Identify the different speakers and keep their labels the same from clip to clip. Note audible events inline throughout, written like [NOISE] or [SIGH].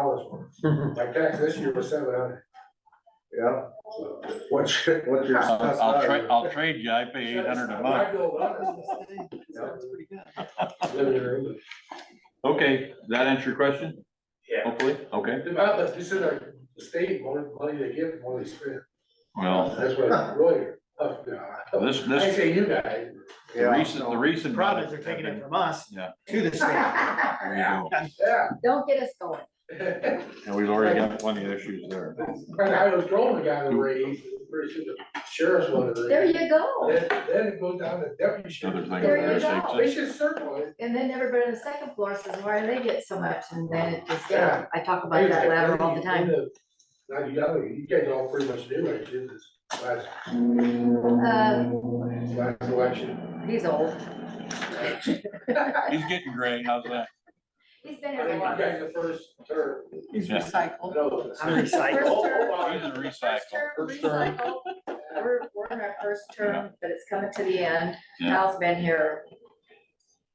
Speaker 1: thousand.
Speaker 2: Mm-hmm.
Speaker 1: My tax this year was seven hundred.
Speaker 3: Yeah,
Speaker 1: So-
Speaker 3: what's, your- what's your?
Speaker 4: I'll, I'll trade, I'll trade you, I pay eight hundred a
Speaker 1: My
Speaker 4: month.
Speaker 1: bill was $100. Living in a room.
Speaker 4: Okay, does that answer your question?
Speaker 1: Yeah.
Speaker 4: Hopefully, okay,
Speaker 1: The amount that you said, like, the state, more money they give, more they spend.
Speaker 4: well,
Speaker 1: That's what I'm really, tough now.
Speaker 4: this,
Speaker 1: I
Speaker 4: this,
Speaker 1: say you guys.
Speaker 4: the recent, the
Speaker 5: The
Speaker 4: recent.
Speaker 5: problem is they're taking it from us.
Speaker 4: Yeah.
Speaker 5: To the
Speaker 2: [LAUGHS]
Speaker 5: state.
Speaker 4: There you go.
Speaker 1: Yeah. [LAUGHS]
Speaker 2: Don't get us going.
Speaker 4: And we've already got plenty of issues there.
Speaker 1: And I was throwing the guy the raise, pretty soon the sheriff's one of the.
Speaker 2: There you go.
Speaker 1: Then, then it goes down to deputy
Speaker 4: Other
Speaker 1: sheriff.
Speaker 4: thing.
Speaker 2: There you go.
Speaker 1: They should circle it.
Speaker 2: And then everybody on the second floor says, why do they get so much? And then it just, yeah, I talk about that ladder all the time.
Speaker 1: Now, you got, you guys all pretty much knew it, did this last,
Speaker 2: Uh,
Speaker 1: last election.
Speaker 2: he's old.
Speaker 4: He's getting gray, how's that?
Speaker 2: He's been
Speaker 1: I
Speaker 2: here
Speaker 1: think
Speaker 2: a
Speaker 1: you
Speaker 2: while.
Speaker 1: guys the first term.
Speaker 6: He's
Speaker 4: Yeah.
Speaker 6: recycled.
Speaker 1: No.
Speaker 5: I'm recycled.
Speaker 1: [LAUGHS] Hold- hold
Speaker 4: He's
Speaker 1: on.
Speaker 4: a recycle.
Speaker 2: First term, recycle. We're, we're in our first term, but it's coming to the end.
Speaker 4: Yeah.
Speaker 2: Kyle's been here.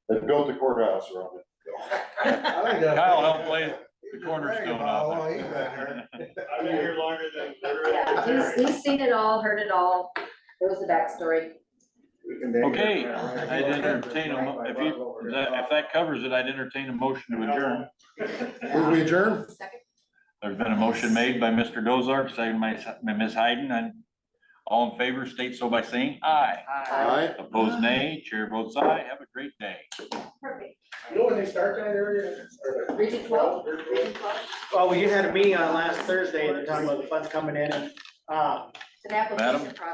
Speaker 3: They built the courthouse around it.
Speaker 4: Kyle
Speaker 3: Kyle
Speaker 4: helped lay the cornerstone out there.
Speaker 7: I've been here longer than literally.
Speaker 2: Yeah, he's, he's seen it all, heard it all. There's the backstory.
Speaker 4: Okay, I'd entertain a mo- if you- If that- if that covers it, I'd entertain a motion to adjourn.
Speaker 3: Will we adjourn?
Speaker 2: Second,
Speaker 4: There's been a motion made by Mr. Dozark, second by by Ms. Hayden, and all in favor, state so by saying aye.
Speaker 2: Aye.
Speaker 3: Alright.
Speaker 4: Opposed, nay. Chair votes aye. Have a great day.
Speaker 2: perfect.
Speaker 1: You know when they start that area? or-
Speaker 2: Region twelve, region twelve,
Speaker 5: Well, we just had a meeting on last Thursday and they're talking about the funds coming in and, uh,
Speaker 2: it's an application process.